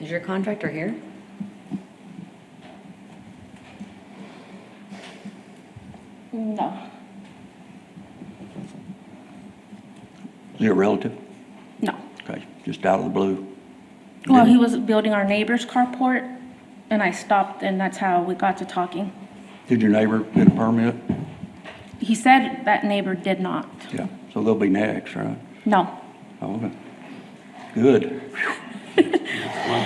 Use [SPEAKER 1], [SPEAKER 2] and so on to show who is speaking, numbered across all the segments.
[SPEAKER 1] Is your contractor here?
[SPEAKER 2] No,
[SPEAKER 3] Is it a relative?
[SPEAKER 2] no.
[SPEAKER 3] Okay, just out of the blue?
[SPEAKER 2] Well,
[SPEAKER 3] Didn't-
[SPEAKER 2] he was building our neighbor's carport, and I stopped, and that's how we got to talking.
[SPEAKER 3] Did your neighbor get a permit?
[SPEAKER 2] He said that neighbor did not.
[SPEAKER 3] Yeah, so they'll be next, right?
[SPEAKER 2] No.
[SPEAKER 3] Oh, Okay. Good.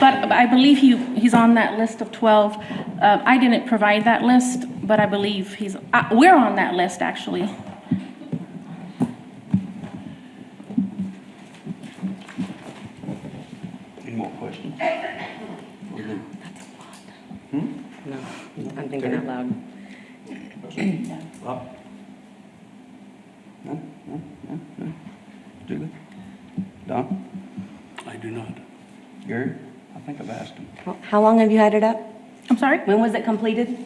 [SPEAKER 2] But I believe he, he's on that list of 12. Uh, I didn't provide that list, but I believe he's, uh, we're on that list, actually.
[SPEAKER 3] Any more questions? We're good.
[SPEAKER 1] No, I'm thinking out loud.
[SPEAKER 3] Bob? No, no, no, no. Julie? Don?
[SPEAKER 4] I do not.
[SPEAKER 3] Gary? I think I've asked him.
[SPEAKER 1] How- How long have you had it up?
[SPEAKER 2] I'm sorry?
[SPEAKER 1] When was it completed?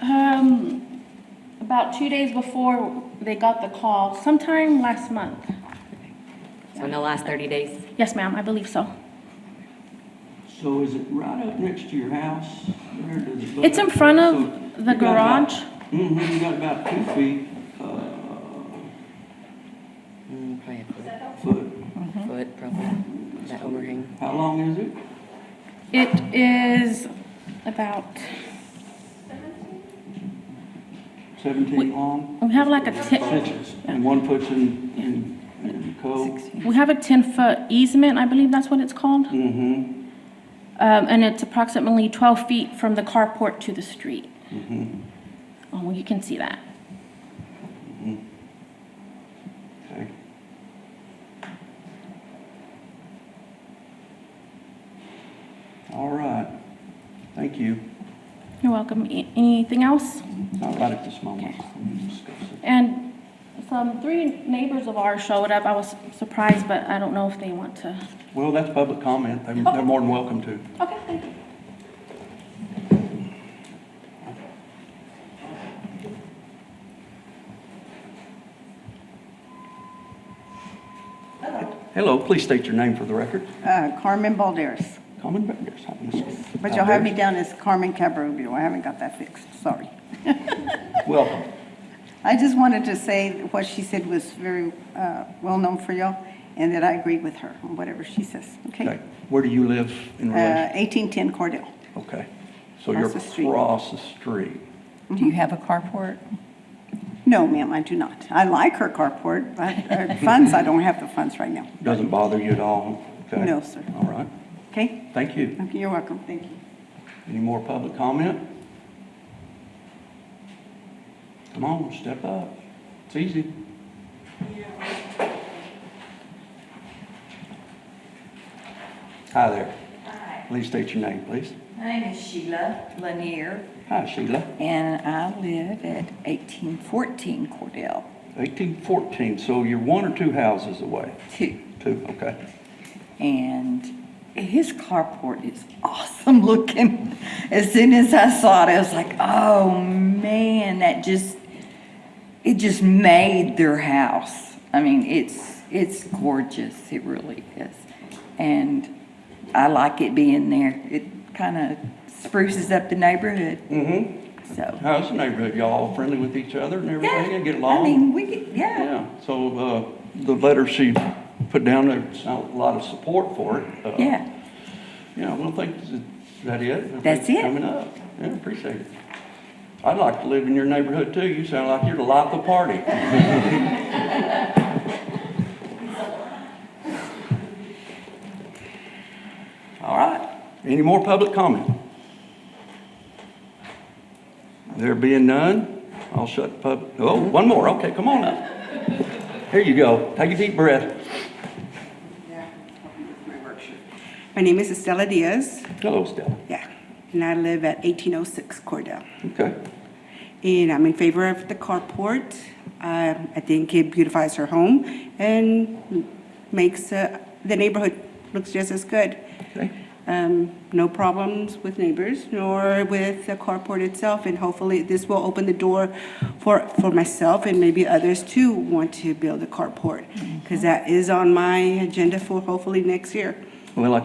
[SPEAKER 2] Um, about two days before they got the call, sometime last month.
[SPEAKER 1] So in the last 30 days?
[SPEAKER 2] Yes, ma'am, I believe so.
[SPEAKER 3] So is it right up next to your house? Where does it-
[SPEAKER 2] It's in front of the
[SPEAKER 3] You got about-
[SPEAKER 2] garage.
[SPEAKER 3] Mhm, you got about two feet, uh,
[SPEAKER 1] Mm, Probably a
[SPEAKER 3] uh, foot.
[SPEAKER 1] foot, foot, probably, that overhang.
[SPEAKER 3] How long is it?
[SPEAKER 2] It is about,
[SPEAKER 3] Seventeen long?
[SPEAKER 2] we have like a 10,
[SPEAKER 3] Six, and one puts in, in, in the coal.
[SPEAKER 2] we have a 10-foot easement, I believe that's what it's called.
[SPEAKER 3] Mm-hmm,
[SPEAKER 2] Um, and it's approximately 12 feet from the carport to the street.
[SPEAKER 3] mm-hmm,
[SPEAKER 2] Oh, well, you can see that.
[SPEAKER 3] Mm-hmm. okay. All right, thank you.
[SPEAKER 2] You're welcome. A- Anything else?
[SPEAKER 3] Not right at this moment. We can discuss it.
[SPEAKER 2] And some three neighbors of ours showed up. I was surprised, but I don't know if they want to.
[SPEAKER 3] Well, that's public comment, They- they're more than welcome to.
[SPEAKER 2] Okay, thank you.
[SPEAKER 3] Hello, please state your name for the record.
[SPEAKER 5] Uh, Carmen Balderas,
[SPEAKER 3] Common Bears. I miss-
[SPEAKER 5] but you'll have me down as Carmen Cabrubio. I haven't got that fixed, sorry.
[SPEAKER 3] Welcome.
[SPEAKER 5] I just wanted to say that what she said was very uh, well-known for y'all, and that I agree with her on whatever she says,
[SPEAKER 3] Okay,
[SPEAKER 5] okay?
[SPEAKER 3] where do you live in
[SPEAKER 5] Uh,
[SPEAKER 3] relation?
[SPEAKER 5] 1810 Cordell.
[SPEAKER 3] Okay, so you're
[SPEAKER 5] across the street.
[SPEAKER 3] across the street.
[SPEAKER 6] Do you have a carport?
[SPEAKER 5] No, ma'am, I do not. I like her carport, but uh, funds, I don't have the funds right now,
[SPEAKER 3] Doesn't bother you at all? Okay.
[SPEAKER 5] No, sir. Uh.
[SPEAKER 3] All right,
[SPEAKER 5] okay?
[SPEAKER 3] thank you.
[SPEAKER 5] Okay, You're welcome, thank you.
[SPEAKER 3] Any more public comment? Come on, step up. It's easy. Hi there.
[SPEAKER 7] Hi,
[SPEAKER 3] Please state your name, please.
[SPEAKER 7] my name is Sheila Lanier.
[SPEAKER 3] Hi, Sheila.
[SPEAKER 6] And I live at 1814 Cordell,
[SPEAKER 3] 1814, so you're one or two houses away?
[SPEAKER 6] too.
[SPEAKER 3] Two, okay.
[SPEAKER 6] And his carport is awesome looking. As soon as I saw it, I was like, oh, man, that just, it just made their house. I mean, it's, it's gorgeous, it really is. And I like it being there. It kind of spruces up the neighborhood,
[SPEAKER 3] Mm-hmm.
[SPEAKER 6] so.
[SPEAKER 3] How's the neighborhood? Y'all friendly with each other and everything?
[SPEAKER 6] Yeah,
[SPEAKER 3] And get
[SPEAKER 6] I
[SPEAKER 3] along?
[SPEAKER 6] mean, we get, yeah,
[SPEAKER 3] Yeah, so uh, the letter she put down, there's not a lot of support for it. Uh,
[SPEAKER 6] yeah.
[SPEAKER 3] Yeah, well, thank, is that it? Thanks
[SPEAKER 6] That's
[SPEAKER 3] for
[SPEAKER 6] it.
[SPEAKER 3] Coming up, yeah, appreciate it. I'd like to live in your neighborhood too, you sound like you're the life of the party. All right, any more public comment? There being none, I'll shut the pub, oh, one more, okay, come on up. Here you go, take a deep breath.
[SPEAKER 5] My name is Estela Diaz,
[SPEAKER 3] Hello, Stella.
[SPEAKER 5] yeah, and I live at 1806 Cordell.
[SPEAKER 3] Okay,
[SPEAKER 5] And I'm in favor of the carport. Um, I think it beautifies her home and makes uh, the neighborhood looks just as good.
[SPEAKER 3] okay,
[SPEAKER 5] Um, No problems with neighbors nor with the carport itself. And hopefully, this will open the door for, for myself and maybe others too want to build a carport. Because that is on my agenda for hopefully next year.
[SPEAKER 3] well, I